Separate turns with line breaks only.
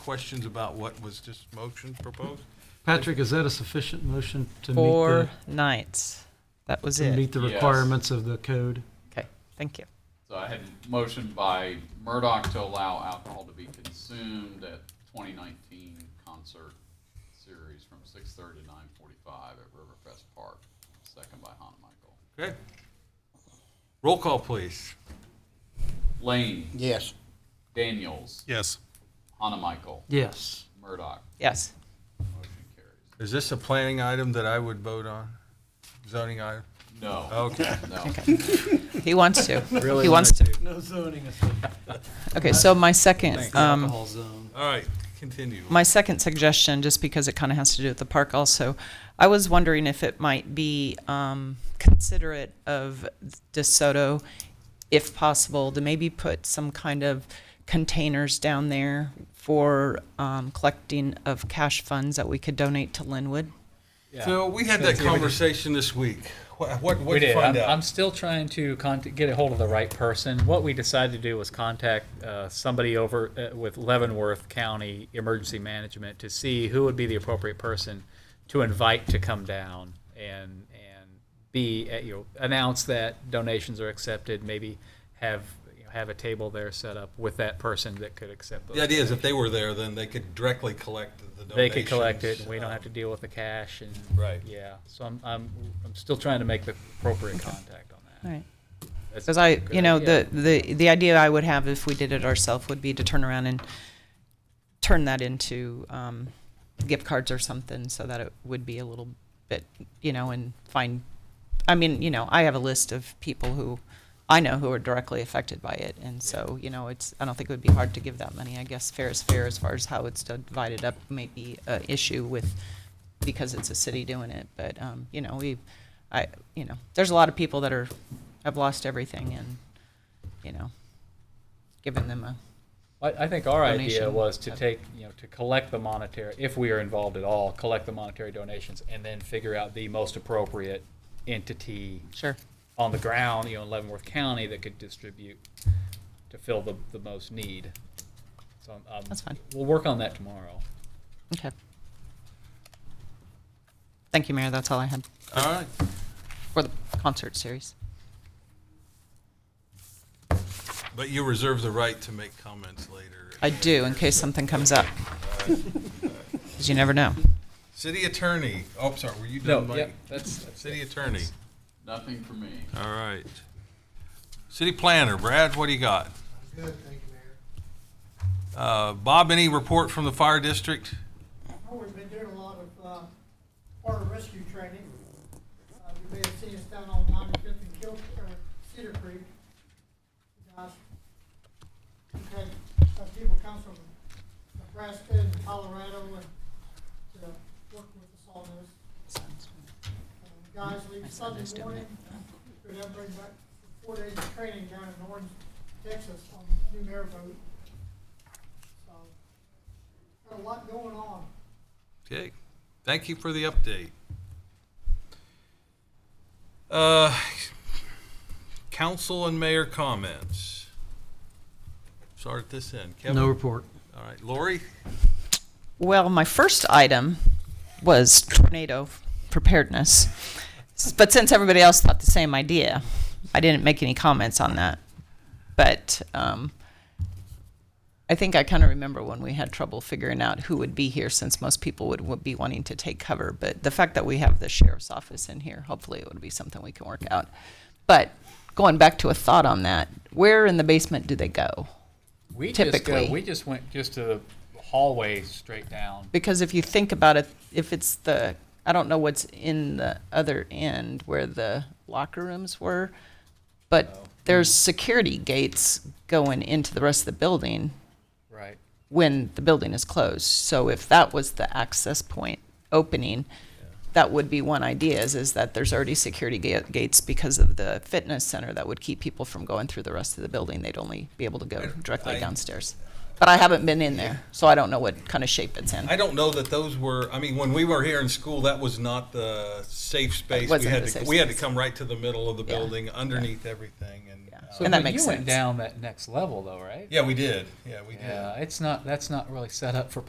questions about what was just motion proposed?
Patrick, is that a sufficient motion to meet the,
Four nights. That was
to
it.
meet the
Yes.
requirements of the code?
Okay, thank you.
So I had a motion by Murdoch to allow alcohol to be consumed at 2019 concert series from 6:30 to 9:45 at Riverfest Park. Second by Han Michael.
Okay. Roll call, please.
Lane,
Yes.
Daniels,
Yes.
Han Michael,
Yes.
Murdoch.
Yes.
Motion carries.
Is this a planning item that I would vote on? Zoning item?
No,
Okay.
no.
He wants to. He wants to.
No zoning
Okay, so my second,
Thanks.
um,
Alcohol zone.
All right, continue.
my second suggestion, just because it kind of has to do with the park also, I was wondering if it might be um, considerate of DeSoto, if possible, to maybe put some kind of containers down there for um, collecting of cash funds that we could donate to Linwood.
So we had that
Yeah, we did.
conversation this week. What, what
We
what'd you
did. I'm,
find
I'm
out?
still trying to contact, get a hold of the right person. What we decided to do was contact uh, somebody over uh, with Leavenworth County Emergency Management to see who would be the appropriate person to invite to come down and and be at, you know, announce that donations are accepted. Maybe have you know, have a table there set up with that person that could accept those.
The idea is if they were there, then they could directly collect the donations. um,
they could collect it. and We don't have to deal with the cash and
Right.
Yeah. So I'm I'm, I'm still trying to make the appropriate contact on that.
All right.
That's-
Because I,
good
you know,
idea.
the, the, the idea I would have if we did it ourselves would be to turn around and turn that into um, gift cards or something so that it would be a little bit, you know, and find, I mean, you know, I have a list of people who I know who are directly affected by it. And so, you know, it's, I don't think it would be hard to give that money. I guess fair is fair as far as how it's divided up may be an issue with, because it's a city doing it. But, um, you know, we, I, you know, there's a lot of people that are, have lost everything and, you know, giving them a,
I, I think our idea
donation.
was to take, you know, to collect the monetary, if we are involved at all, collect the monetary donations and then figure out the most appropriate entity
sure.
on the ground, you know, in Leavenworth County that could distribute to fill the, the most need. So, um,
That's fine.
We'll work on that tomorrow.
Okay. Thank you, Mayor. That's all I had
Uh, All right.
for the concert series.
But you reserve the right to make comments later.
I do, in case something comes up. Because you never know.
City attorney, oh, sorry, were you done, Mike?
Yep, that's, that's
City attorney.
Nothing for me.
All right. City planner, Brad, what do you got?
Good, thank you, Mayor.
Uh, Bob, any report from the fire district?
Oh, we've been doing a lot of, uh, water rescue training. Uh, you may have seen us down on ninety-fifth and Kill, or Cedar Creek. Guys, we've had, uh, people come from Nebraska and Colorado and to work with us on this. Um, Guys
My
leave
son is
Sunday
doing
morning, we then bring back four days of training down in Orange, Texas on new airboat. So, got a lot going on.
Okay, thank you for the update. Uh, Council and mayor comments. Start at this end. Kevin?
No
All
report.
right, Lori?
Well, my first item was tornado preparedness. S- But since everybody else thought the same idea, I didn't make any comments on that. But um, I think I kind of remember when we had trouble figuring out who would be here since most people would, would be wanting to take cover. But the fact that we have the sheriff's office in here, hopefully it would be something we can work out. But going back to a thought on that, where in the basement do they go?
We just
Typically.
go, we just went just to the hallway straight down.
because if you think about it, if it's the, I don't know what's in the other end where the locker rooms were,
Oh.
but there's security gates going into the rest of the building
Right.
when the building is closed. So if that was the access point opening, that would be one idea is, is that there's already security ga- gates because of the fitness center that would keep people from going through the rest of the building. They'd only be able to go directly
I-
downstairs. But I haven't been in there, so I don't know what kind of shape it's in.
I don't know that those were, I mean, when we were here in school, that was not the safe space. We
wasn't
had
the
to,
safe
we had to
space.
come right to the middle of the
Yeah.
building, underneath everything and.
Yeah.
uh,
So
And that
but
makes
you went
sense.
down that next level though, right?
Yeah, we did. Yeah, we did.
Yeah, it's not, that's not really set up for